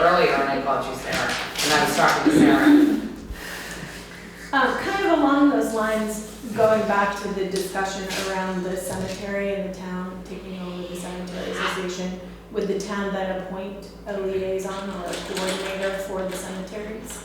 earlier and I called you Sarah, and I was talking to Sarah. Um, kind of along those lines, going back to the discussion around the cemetery and the town taking over the cemetery association, would the town then appoint a liaison or a coordinator for the cemeteries?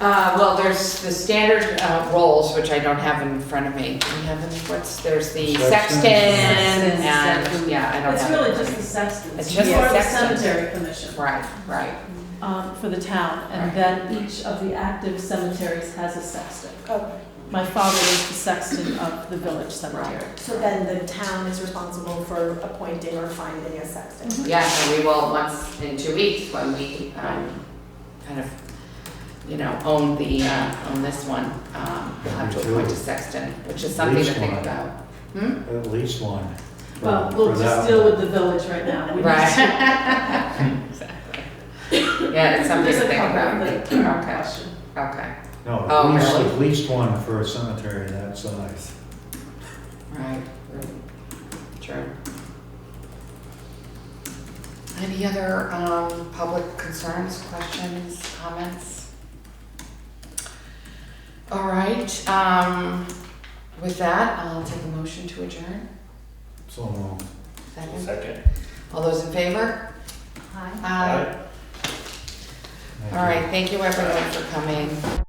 Uh, well, there's the standard, uh, roles, which I don't have in front of me. Do we have any, what's, there's the Sexton. sexton and, Sexton. yeah, I don't It's have. really it. just the sexton. It's just the For the sexton. cemetery commission, Right, right. um, for the town, and Right. then each of the active cemeteries has a sexton. Okay, My father was the sexton of the village cemetery. so then the town is responsible for appointing or finding a sexton. Yeah, so we will, once in two weeks, when we, um, kind of, you know, own the, uh, own this one, um, we'll have to Me too. appoint a sexton, which is something to Least think one. about. Hmm? At least one. for- Well, we'll for just that deal one. with the village right now. We Right. just- Exactly. Yeah, it's something There's to a think about. couple that are Okay, questioned. okay, No, at Oh, least, really? at least one for a cemetery that size. right, true. Any other, um, public concerns, questions, comments? All right, um, with that, I'll take a motion to adjourn. So um, long. Second, Second. all those in favor? Hi. Aye. All right, thank you everyone for coming.